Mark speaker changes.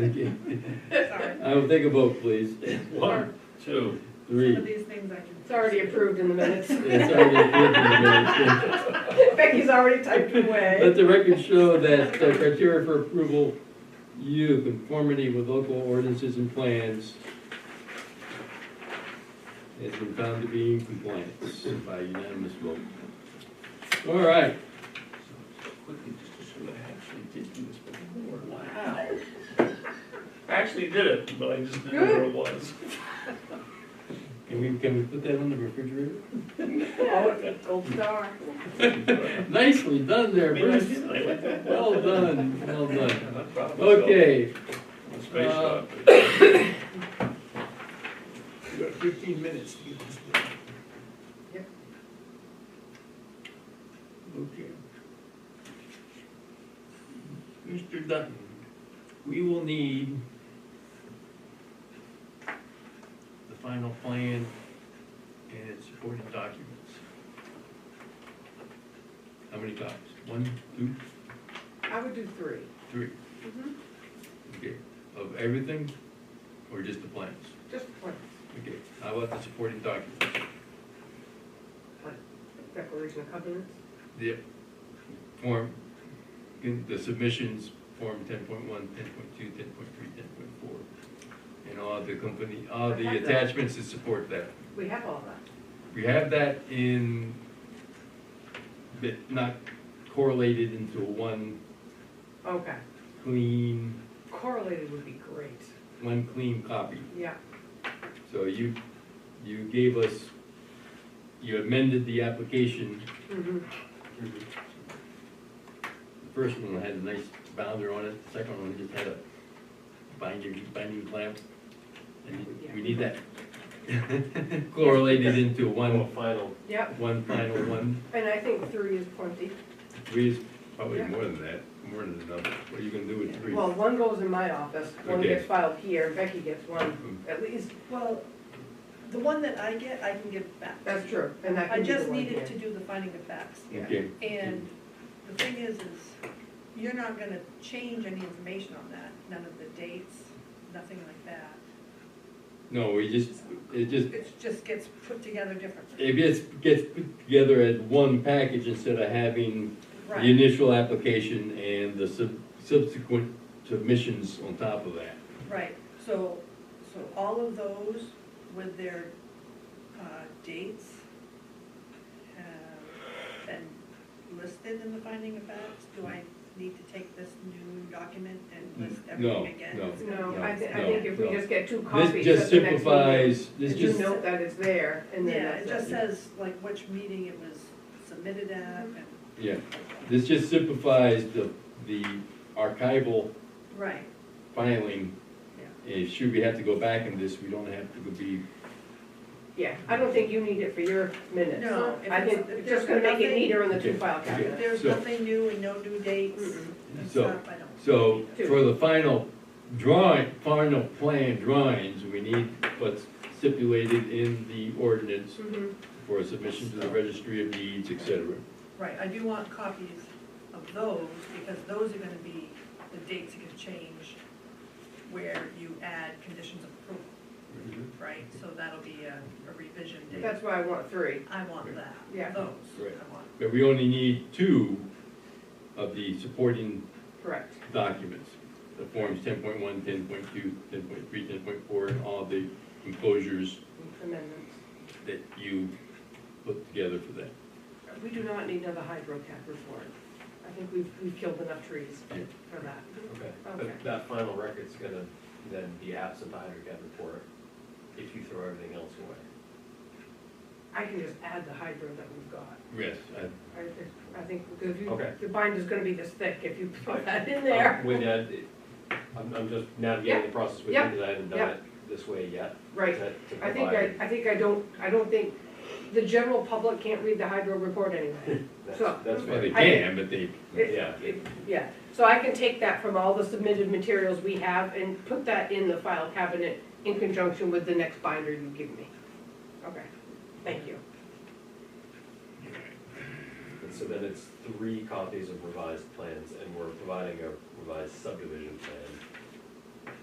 Speaker 1: Thank you.
Speaker 2: Sorry.
Speaker 1: I will take a vote, please.
Speaker 3: One, two,
Speaker 2: Some of
Speaker 1: Three.
Speaker 2: these things I can.
Speaker 4: It's already approved in the minutes.
Speaker 1: It's already approved in the minutes.
Speaker 4: Becky's already typed away.
Speaker 1: Let the record show that the criteria for approval, U, conformity with local ordinances and plans has been found to be in compliance by unanimous vote. All right,
Speaker 3: quickly, just to show that I actually did do this before. Wow. I actually did it, but I just didn't know where it was.
Speaker 1: can we, can we put that on the refrigerator?
Speaker 4: Oh,
Speaker 1: Mm-hmm.
Speaker 4: Gold star.
Speaker 1: Nicely done
Speaker 3: I
Speaker 1: there,
Speaker 3: mean, I
Speaker 1: Bruce.
Speaker 3: did, I like that.
Speaker 1: Well done, well done.
Speaker 3: I'm not proud of myself.
Speaker 1: Okay,
Speaker 3: I'm Space
Speaker 1: uh,
Speaker 3: shot. but- Uh,
Speaker 5: You got fifteen minutes to get this done.
Speaker 4: Yep.
Speaker 5: Okay.
Speaker 1: Mr. Dutton, we will need the final plan and its supporting documents. How many copies? One, two,
Speaker 4: I would do three.
Speaker 1: three?
Speaker 4: Mm-hmm.
Speaker 1: Okay, of everything, or just the plans?
Speaker 4: Just one,
Speaker 1: Okay, how about the supporting documents?
Speaker 4: one. Declaration of covenants.
Speaker 1: The form, the submissions, form 10.1, 10.2, 10.3, 10.4, and all the company, all the attachments that support that.
Speaker 4: We have all that.
Speaker 1: We have that in, but not correlated into one
Speaker 4: Okay.
Speaker 1: clean,
Speaker 4: Correlated would be great.
Speaker 1: one clean copy.
Speaker 4: Yeah.
Speaker 1: So you, you gave us, you amended the application,
Speaker 4: Mhm.
Speaker 1: the first one had a nice bounder on it, the second one just had a binding, binding clamp. And we need that correlated into
Speaker 3: Oh,
Speaker 1: one,
Speaker 3: final.
Speaker 4: Yep.
Speaker 1: one final one,
Speaker 4: And I think three is plenty.
Speaker 1: three is probably more than that, more than enough. What are you gonna do with three?
Speaker 4: Well, one goes in my office, one
Speaker 1: Okay. Mm-hmm.
Speaker 4: gets filed here, Becky gets one, at least.
Speaker 2: Well, the one that I get, I can give back.
Speaker 4: That's true. And I
Speaker 2: I
Speaker 4: can do
Speaker 2: just
Speaker 4: the one here.
Speaker 2: needed to do the finding of facts.
Speaker 4: Yeah.
Speaker 1: Okay.
Speaker 2: And the thing is, is you're not gonna change any information on that, none of the dates, nothing like that.
Speaker 1: No, we just, it just,
Speaker 2: It just gets put together differently.
Speaker 1: it gets, gets put together as one package instead of having the
Speaker 2: Right,
Speaker 1: initial application and the sub- subsequent submissions on top of that.
Speaker 2: right. So, so all of those with their uh, dates have been listed in the finding of facts? Do I need to take this new document and list
Speaker 1: No,
Speaker 2: everything again?
Speaker 1: no.
Speaker 4: No, I thi- I
Speaker 1: No,
Speaker 4: think if we
Speaker 1: no.
Speaker 4: just get two copies.
Speaker 1: This
Speaker 4: at
Speaker 1: just
Speaker 4: the next meeting,
Speaker 1: simplifies, this
Speaker 4: And you
Speaker 1: just,
Speaker 4: note that it's there and then
Speaker 2: Yeah,
Speaker 4: that's
Speaker 2: it
Speaker 4: it.
Speaker 2: just says like which meeting it was submitted at and,
Speaker 1: yeah, this just simplifies the, the archival
Speaker 2: right,
Speaker 1: filing. And should we have to go back in this, we don't have to be,
Speaker 4: Yeah, I don't think you need it for your minutes.
Speaker 2: No, if
Speaker 4: I think
Speaker 2: it's- if
Speaker 4: it's
Speaker 2: there's
Speaker 4: just gonna make it
Speaker 2: nothing-
Speaker 4: neater in the two
Speaker 1: Okay,
Speaker 4: file
Speaker 1: okay.
Speaker 2: If
Speaker 4: cabinet.
Speaker 2: there's
Speaker 1: So-
Speaker 2: nothing new and no new dates
Speaker 4: Mm-mm.
Speaker 2: and
Speaker 1: So-
Speaker 2: stuff, I don't.
Speaker 1: so for the final drawing, final plan drawings, we need what's stipulated in the ordinance
Speaker 2: Mm-hmm,
Speaker 4: Mhm.
Speaker 1: for submission to the registry of deeds, et cetera.
Speaker 2: Right, I do want copies of those, because those are gonna be, the dates are gonna change where you add conditions of approval, right? So that'll be a a revision date.
Speaker 4: That's why I want three.
Speaker 2: I want that,
Speaker 4: Yeah.
Speaker 2: those,
Speaker 1: Right.
Speaker 2: I want.
Speaker 1: But we only need two of the supporting
Speaker 4: Correct.
Speaker 1: documents. The forms 10.1, 10.2, 10.3, 10.4, and all the enclosures
Speaker 4: Amendments.
Speaker 1: that you put together for that.
Speaker 4: We do not need another hydro cap report. I think we've, we've killed enough trees
Speaker 1: Yeah.
Speaker 4: for that.
Speaker 6: Okay,
Speaker 4: Okay.
Speaker 6: but that final record's gonna then be absent the hydrocarbon report if you throw everything else away.
Speaker 4: I can just add the hydro that we've got.
Speaker 1: Yes, I-
Speaker 4: I, I think, because you,
Speaker 6: Okay.
Speaker 4: the binder's gonna be this thick if you put that in
Speaker 6: Um,
Speaker 4: there.
Speaker 6: With that, it- I'm, I'm just navigating the process with you,
Speaker 4: yeah,
Speaker 6: because I haven't done
Speaker 4: yeah.
Speaker 6: it this way yet.
Speaker 4: Right.
Speaker 6: to- to
Speaker 4: I think I,
Speaker 6: provide-
Speaker 4: I think I don't, I don't think, the general public can't read the hydro report anyway. so-
Speaker 6: That's, that's
Speaker 1: well, they
Speaker 6: fair.
Speaker 1: can, but they,
Speaker 4: It-
Speaker 6: Yeah.
Speaker 4: it- Yeah, so I can take that from all the submitted materials we have and put that in the file cabinet in conjunction with the next binder you give me. Okay, thank you.
Speaker 6: And so then it's three copies of revised plans, and we're providing a revised subdivision plan